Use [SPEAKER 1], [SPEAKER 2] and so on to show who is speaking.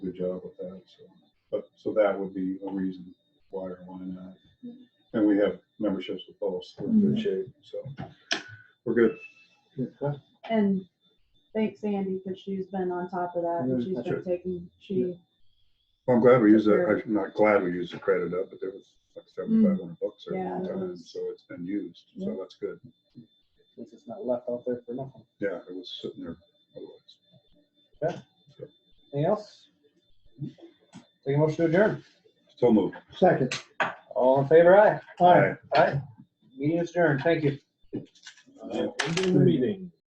[SPEAKER 1] job with that, so. But, so that would be a reason why or why not.
[SPEAKER 2] Mm-hmm.
[SPEAKER 1] And we have memberships with both, so we're in good shape, so we're good.
[SPEAKER 2] And thanks Sandy, because she's been on top of that, and she's
[SPEAKER 1] That's
[SPEAKER 2] been taking, she,
[SPEAKER 1] Well, I'm glad we used that, I'm not glad we used the credit up, but there was like seventy-five hundred bucks there
[SPEAKER 2] Mm. Yeah,
[SPEAKER 1] at the
[SPEAKER 2] it
[SPEAKER 1] time,
[SPEAKER 2] was.
[SPEAKER 1] so it's been used, so
[SPEAKER 3] Yeah.
[SPEAKER 1] that's good.
[SPEAKER 3] This is not left out there for nothing.
[SPEAKER 1] Yeah, it was sitting there otherwise.
[SPEAKER 3] Anything else? Take a motion to adjourn.
[SPEAKER 1] Still moved.
[SPEAKER 4] Second.
[SPEAKER 3] All in favor, aye?
[SPEAKER 4] Aye.
[SPEAKER 3] Aye. Meeting is adjourned. Thank you.
[SPEAKER 5] Ending the meeting.